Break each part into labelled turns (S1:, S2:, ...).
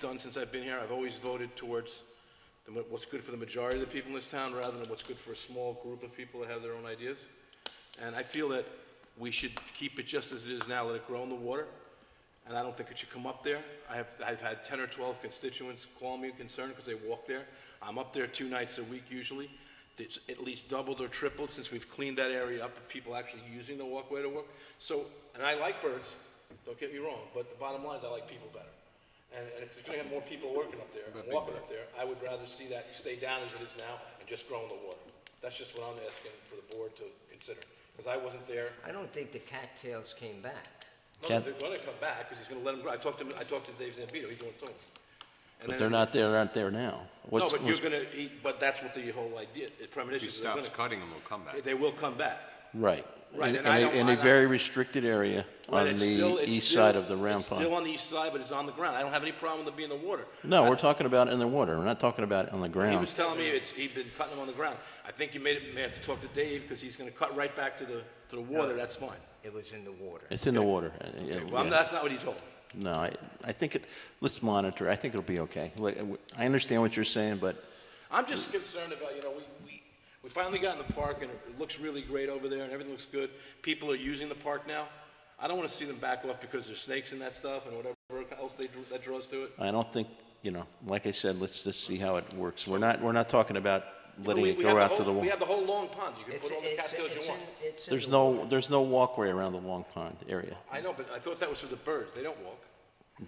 S1: done since I've been here, I've always voted towards the ma- what's good for the majority of the people in this town, rather than what's good for a small group of people that have their own ideas. And I feel that we should keep it just as it is now, let it grow in the water, and I don't think it should come up there. I have, I've had 10 or 12 constituents call me concerned because they walk there. I'm up there two nights a week usually. It's at least doubled or tripled since we've cleaned that area up of people actually using the walkway to work. So, and I like birds, don't get me wrong, but the bottom line is I like people better. And and if there's gonna have more people working up there, and walking up there, I would rather see that stay down as it is now and just grow in the water. That's just what I'm asking for the board to consider, because I wasn't there.
S2: I don't think the cattails came back.
S1: No,
S3: Ken?
S1: they're gonna come back, because he's gonna let them grow. I talked to him, I talked to Dave Zambito, he's going to.
S3: But they're not there, aren't there now?
S1: No,
S3: What's-
S1: but you're
S3: what's-
S1: gonna, he- but that's what the whole idea, the premonition
S4: If
S1: is
S4: he
S1: they're
S4: stops
S1: gonna,
S4: cutting them, will come back.
S1: they will come back.
S3: Right.
S1: Right,
S3: In-
S1: and
S3: in
S1: I
S3: a-
S1: don't-
S3: In
S1: I
S3: a
S1: don't-
S3: very restricted area
S1: Right,
S3: on
S1: it's still-
S3: the
S1: it's
S3: east
S1: still-
S3: side of the round
S1: It's still
S3: pond.
S1: on the east side, but it's on the ground. I don't have any problem with it being in the water.
S3: No, we're talking about in the water, we're not talking about on the
S1: He
S3: ground.
S1: was telling me it's, he'd been cutting them on the ground. I think you may, may have to talk to Dave, because he's gonna cut right back to the, to the water, that's fine.
S2: It was in the water.
S3: It's in the water. Uh, yeah,
S1: Well, I'm-
S3: yeah.
S1: that's not what he told me.
S3: No, I, I think, it. let's monitor, I think it'll be okay. Like, I understand what you're saying, but
S1: I'm just concerned about, you know, we, we, we finally got in the park and it looks really great over there and everything looks good. People are using the park now. I don't want to see them back off because there's snakes and that stuff and whatever else they, drew- that draws to it.
S3: I don't think, you know, like I said, let's just see how it works. We're not, we're not talking about
S1: But
S3: letting
S1: we-
S3: it
S1: we have
S3: go out to
S1: whole-
S3: the
S1: We
S3: water.
S1: have the whole long pond. You can
S2: It's-
S1: put all the
S2: it's-
S1: cattails
S2: it's
S1: you
S2: in-
S1: want.
S2: it's in
S3: There's
S2: the
S3: no, there's no walkway around the Long Pond area.
S1: I know, but I thought that was for the birds. They don't walk.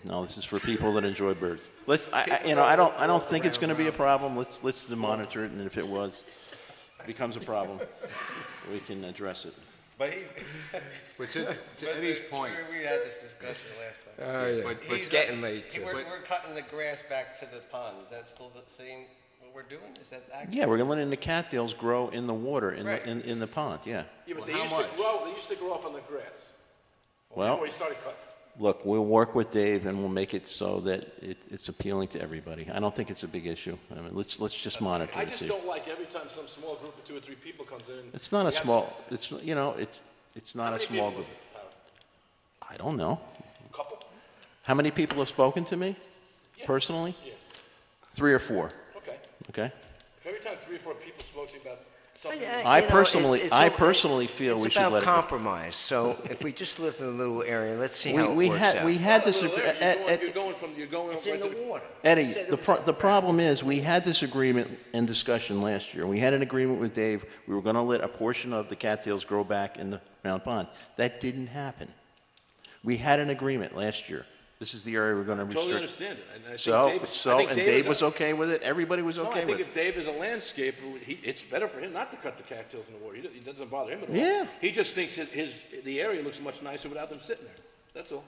S3: No, this is for people that enjoy birds. Let's, I, I, you know, I don't, I don't think it's gonna be a problem, let's, let's monitor it, and if it was, becomes a problem, we can address it.
S5: But he,
S4: But to,
S5: but
S4: to Eddie's
S5: the-
S4: point,
S5: We had this discussion last time.
S4: but,
S5: He's-
S4: but getting,
S6: late,
S5: He- We're,
S4: But-
S5: we're cutting the grass back to the pond. Is that still the same, what we're doing? Is that accurate?
S3: Yeah, we're gonna let the cattails grow in the water, in,
S5: Right.
S3: the in, in the pond, yeah.
S1: Yeah, but
S4: Well,
S1: they
S4: how
S1: used to
S4: much?
S1: grow, they used to grow up on the grass.
S3: Well,
S1: Before he started cutting.
S3: look, we'll work with Dave, and we'll make it so that it, it's appealing to everybody. I don't think it's a big issue, I mean, let's, let's just monitor
S1: I
S3: and
S1: just
S3: see.
S1: don't like every time some small group of two or three people comes in.
S3: It's not a
S1: we have-
S3: small, it's, you know, it's, it's
S1: How
S3: not a
S1: many
S3: small
S1: people
S3: group.
S1: was it? Uh,
S3: I don't know.
S1: Couple?
S3: How many people have spoken to me personally?
S1: Yeah.
S3: Three or four,
S1: Okay.
S3: okay?
S1: If every time three or four people spoke to you about something,
S2: Well, yeah,
S3: I
S2: uh, you know, it's-
S3: personally-
S2: it's
S3: I
S2: all- uh,
S3: personally feel we should let
S2: It's about
S3: it go.
S2: compromise, so if we just live in a little area, let's see
S3: We,
S2: how it
S3: we
S2: works
S3: had, we
S2: out.
S3: had eh,
S1: Not a little
S3: disagreement.
S1: area. You're going- You're going from, you're going.
S2: It's
S1: right
S2: in
S1: to
S2: the water.
S3: e, Eddie,
S2: He said it
S3: the,
S2: was
S3: pro-
S2: in
S3: the problem is, we had this agreement and discussion last year. We had an agreement with Dave, we were gonna let a portion of the cattails grow back in the round pond. That didn't happen. We had an agreement last year. This is the area we're gonna
S1: Totally
S3: restrict.
S1: understand it. and I think
S3: So,
S1: Dave- I
S3: so,
S1: think
S3: and Dave
S1: is
S3: was
S1: a-
S3: okay with it, everybody was
S1: No,
S3: okay
S1: I
S3: with
S1: think
S3: it.
S1: if Dave is a landscaper, he, it's better for him not to cut the cattails in the water. He do- It doesn't bother him at all.
S3: Yeah.
S1: He just thinks that his, the area looks much nicer without them sitting there. That's all.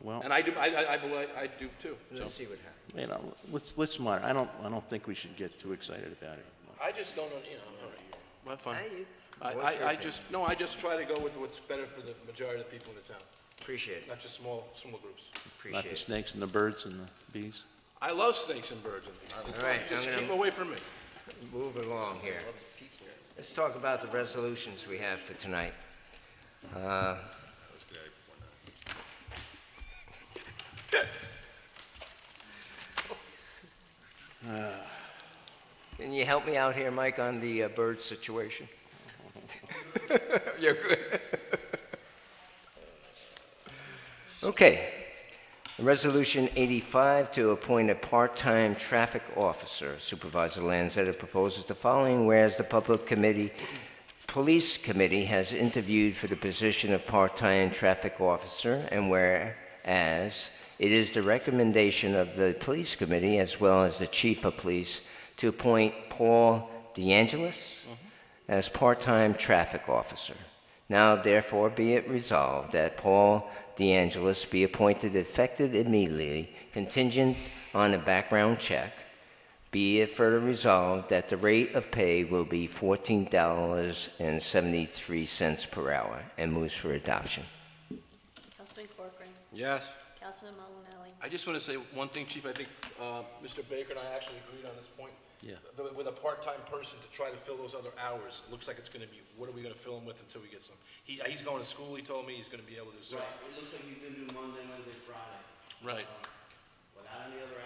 S3: Well-
S1: And I do, I, I, I believe, I do too.
S2: Let's see what happens.
S3: You know, let's, let's monitor, I don't, I don't think we should get too excited about it.
S1: I just don't, know, you know, all right. Well, fine.
S2: Hey, you-
S1: I,
S2: what's your
S1: I, I
S2: opinion?
S1: just, no, I just try to go with what's better for the majority of the people in the town,
S2: Appreciate it,
S1: not just small, small groups.
S3: Not
S2: appreciate
S3: the
S2: it.
S3: snakes and the birds and the bees.
S1: I love snakes and birds and things.
S2: All right,
S1: Just
S2: I'm
S1: keep
S2: gonna-
S1: them away from me.
S2: Move along here. Let's talk about the resolutions we have for tonight. Uh, Can you help me out here, Mike, on the uh, bird situation? You're good. Okay, Resolution 85 to appoint a part-time traffic officer. Supervisor Lanzetta proposes the following, whereas the Public Committee, Police Committee has interviewed for the position of part-time traffic officer, and whereas it is the recommendation of the Police Committee, as well as the Chief of Police, to appoint Paul DeAngelis as part-time traffic officer. Now therefore be it resolved that Paul DeAngelis be appointed effective immediately contingent on a background check. Be it further resolved that the rate of pay will be fourteen dollars and seventy-three cents per hour and moves for adoption.
S7: Councilman Corcoran,
S4: yes.
S7: Councilman Malinelli,
S1: I just want to say one thing, Chief, I think uh, Mr. Baker and I actually agreed on this point. Yeah. With a part-time person to try to fill those other hours, it looks like it's going to be, what are we going to fill him with until we get some? He, he's going to school, he told me, he's going to be able to do something.
S8: Right, it looks like he's gonna do Monday, Wednesday, Friday.
S1: Right.
S8: Without any other